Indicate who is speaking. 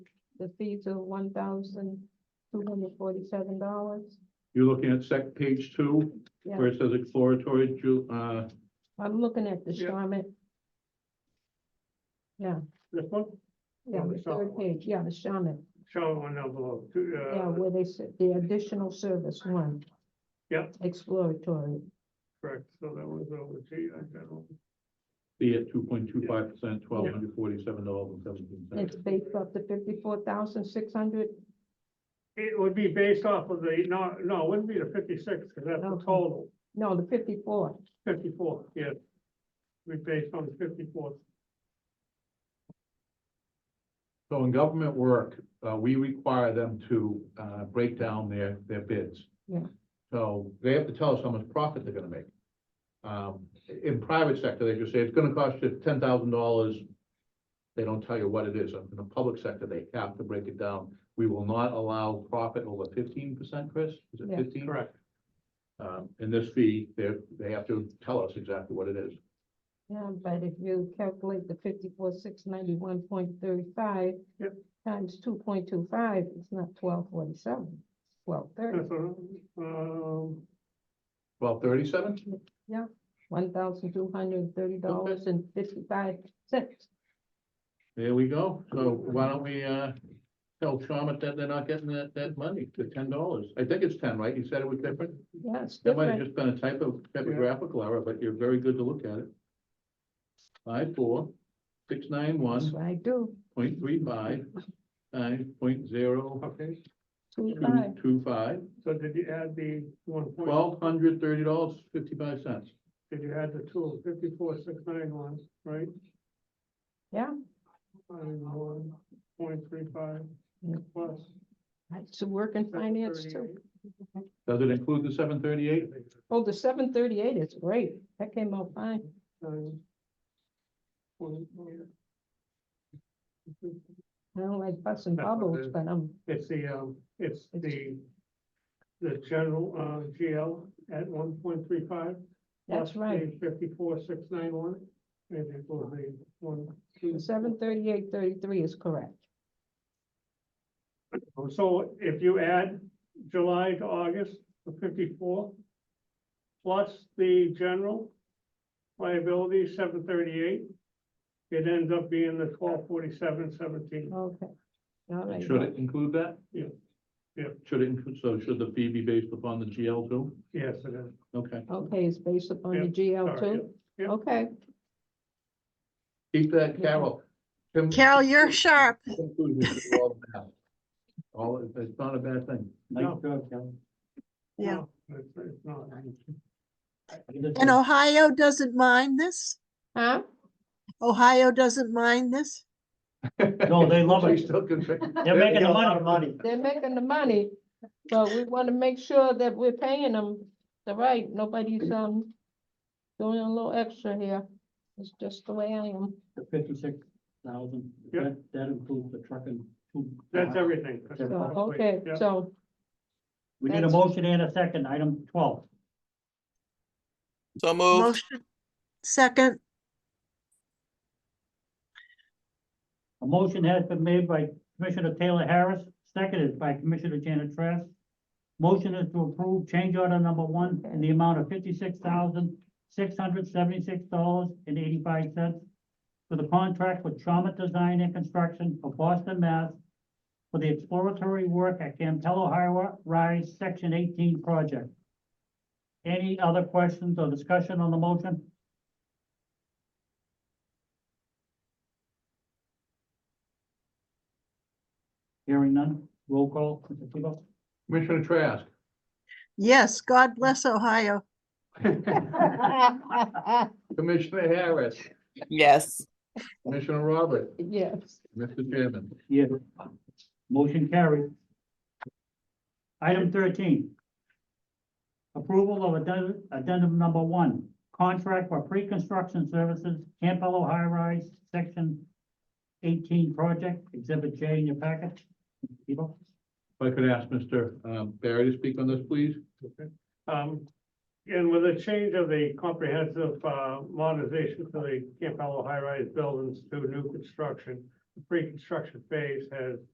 Speaker 1: the fee to one thousand two hundred forty-seven dollars.
Speaker 2: You're looking at sec page two,
Speaker 1: Yeah.
Speaker 2: where it says exploratory, ju- uh,
Speaker 1: I'm looking at the
Speaker 2: Yeah.
Speaker 1: Charmin,
Speaker 3: This one,
Speaker 1: yeah,
Speaker 3: Oh,
Speaker 1: the
Speaker 3: the Charmin
Speaker 1: third
Speaker 3: one.
Speaker 1: page, yeah, the Charmin,
Speaker 3: show one down below, two,
Speaker 1: yeah,
Speaker 3: uh,
Speaker 1: where they said the additional service one.
Speaker 3: Yep.
Speaker 1: Exploratory,
Speaker 3: correct, so that was over to you, I don't know.
Speaker 2: fee at two point two five percent, twelve hundred forty-seven dollars and seventeen
Speaker 1: it's
Speaker 2: cents.
Speaker 1: based off the fifty-four thousand six hundred,
Speaker 3: It would be based off of the, no, no, it wouldn't be the fifty-six, because that's the
Speaker 1: Okay.
Speaker 3: total,
Speaker 1: no, the fifty-four,
Speaker 3: fifty-four, yeah. We based on fifty-four,
Speaker 2: So in government work, uh, we require them to, uh, break down their, their bids.
Speaker 1: Yeah.
Speaker 2: So they have to tell us how much profit they're gonna make. Um, in private sector, they just say it's gonna cost you ten thousand dollars. They don't tell you what it is. In the public sector, they have to break it down. We will not allow profit over fifteen percent, Chris? Is it
Speaker 1: Yeah.
Speaker 2: fifteen?
Speaker 3: correct,
Speaker 2: Um, and this fee, they, they have to tell us exactly what it is.
Speaker 1: yeah, but if you calculate the fifty-four six ninety-one point thirty-five.
Speaker 3: Yep.
Speaker 1: Times two point two five, it's not twelve forty-seven, twelve thirty,
Speaker 3: that's, what, um,
Speaker 2: Twelve thirty-seven?
Speaker 1: one thousand two hundred thirty dollars and fifty-five cents.
Speaker 2: There we go. So why don't we, uh, tell Chalmers that they're not getting that, that money, the ten dollars? I think it's ten, right? You said it was different?
Speaker 1: Yeah, it's
Speaker 2: That might have
Speaker 1: different,
Speaker 2: just been a type of typographical error, but you're very good to look at it. Five, four, six, nine,
Speaker 1: that's
Speaker 2: one,
Speaker 1: what I do,
Speaker 2: point three, five, nine, point zero,
Speaker 3: okay,
Speaker 1: two five,
Speaker 2: two, two, five,
Speaker 3: so did you add the one point?
Speaker 2: twelve hundred thirty dollars, fifty-five cents.
Speaker 3: Did you add the two, fifty-four, six, nine, one, right?
Speaker 1: Yeah.
Speaker 3: And one, point three five,
Speaker 1: Yeah.
Speaker 3: plus.
Speaker 1: I used to work in finance too.
Speaker 3: 738.
Speaker 2: Does it include the seven thirty-eight?
Speaker 1: Oh, the seven thirty-eight is great, that came out fine,
Speaker 3: Nine. One, yeah.
Speaker 1: I don't like busting
Speaker 3: That's what
Speaker 1: bubbles,
Speaker 3: it is.
Speaker 1: but I'm,
Speaker 3: It's the, um, it's
Speaker 1: It's-
Speaker 3: the, the general, uh, GL at one point three five.
Speaker 1: that's right.
Speaker 3: Fifty-four, six, nine, one, and it will be one, two.
Speaker 1: The seven thirty-eight thirty-three is correct.
Speaker 3: So if you add July to August, the fifty-four, plus the general liability, seven thirty-eight, it ends up being the twelve forty-seven, seventeen.
Speaker 1: Okay. All right.
Speaker 2: Should it include that?
Speaker 3: Yeah. Yeah.
Speaker 2: Should it include, so should the fee be based upon the GL too?
Speaker 3: Yes, it is.
Speaker 2: Okay,
Speaker 1: Okay, it's based upon the
Speaker 3: Yeah,
Speaker 1: GL
Speaker 3: sorry,
Speaker 1: too?
Speaker 3: yeah, yeah.
Speaker 1: Okay,
Speaker 2: keep that, Carol. Tim-
Speaker 4: Carol, you're sharp.
Speaker 2: Conclusions are all bad. All, it's not a bad thing.
Speaker 3: No.
Speaker 4: Yeah.
Speaker 3: No, It's it's not.
Speaker 4: And
Speaker 2: Mm.
Speaker 4: Ohio doesn't mind this?
Speaker 1: huh?
Speaker 4: Ohio doesn't mind this?
Speaker 5: No, they love
Speaker 2: They
Speaker 5: it.
Speaker 2: still can fix-
Speaker 5: They're making a lot of money.
Speaker 1: They're making the money, but we want to make sure that we're paying them the right. Nobody's, um, doing a little extra here. It's just the way I am.
Speaker 5: The fifty-six thousand,
Speaker 3: Yeah.
Speaker 5: that, that includes the trucking.
Speaker 3: That's everything.
Speaker 5: So,
Speaker 1: So,
Speaker 3: That's-
Speaker 1: okay,
Speaker 3: yeah.
Speaker 1: so,
Speaker 5: We need a
Speaker 1: That's-
Speaker 5: motion and a second, item twelve.
Speaker 6: So moved.
Speaker 4: Motion, second,
Speaker 5: A motion has been made by Commissioner Taylor Harris, seconded by Commissioner Janet Trask. Motion is to approve change order number one in the amount of fifty-six thousand, six hundred seventy-six dollars and eighty-five cents for the contract with Trauma Design and Construction of Boston, Mass. for the exploratory work at Campello Highway Rise Section eighteen project. Any other questions or discussion on the motion? Hearing none, roll call, Mr. Tebow?
Speaker 2: Commissioner Trask,
Speaker 4: yes, God bless Ohio.
Speaker 2: Commissioner Harris,
Speaker 6: Yes.
Speaker 2: Commissioner Robert,
Speaker 1: yes.
Speaker 2: Mr. Chairman.
Speaker 5: Yeah. Motion carried. Item thirteen. Approval of addendum, addendum number one, contract for pre-construction services, Campello High Rise, section eighteen project, exhibit J in your packet. People,
Speaker 2: If I could ask Mr. um, Barry to speak on this, please?
Speaker 3: Um, and with the change of the comprehensive, uh, modernization to the Camp High Rise buildings to new construction, the pre-construction phase has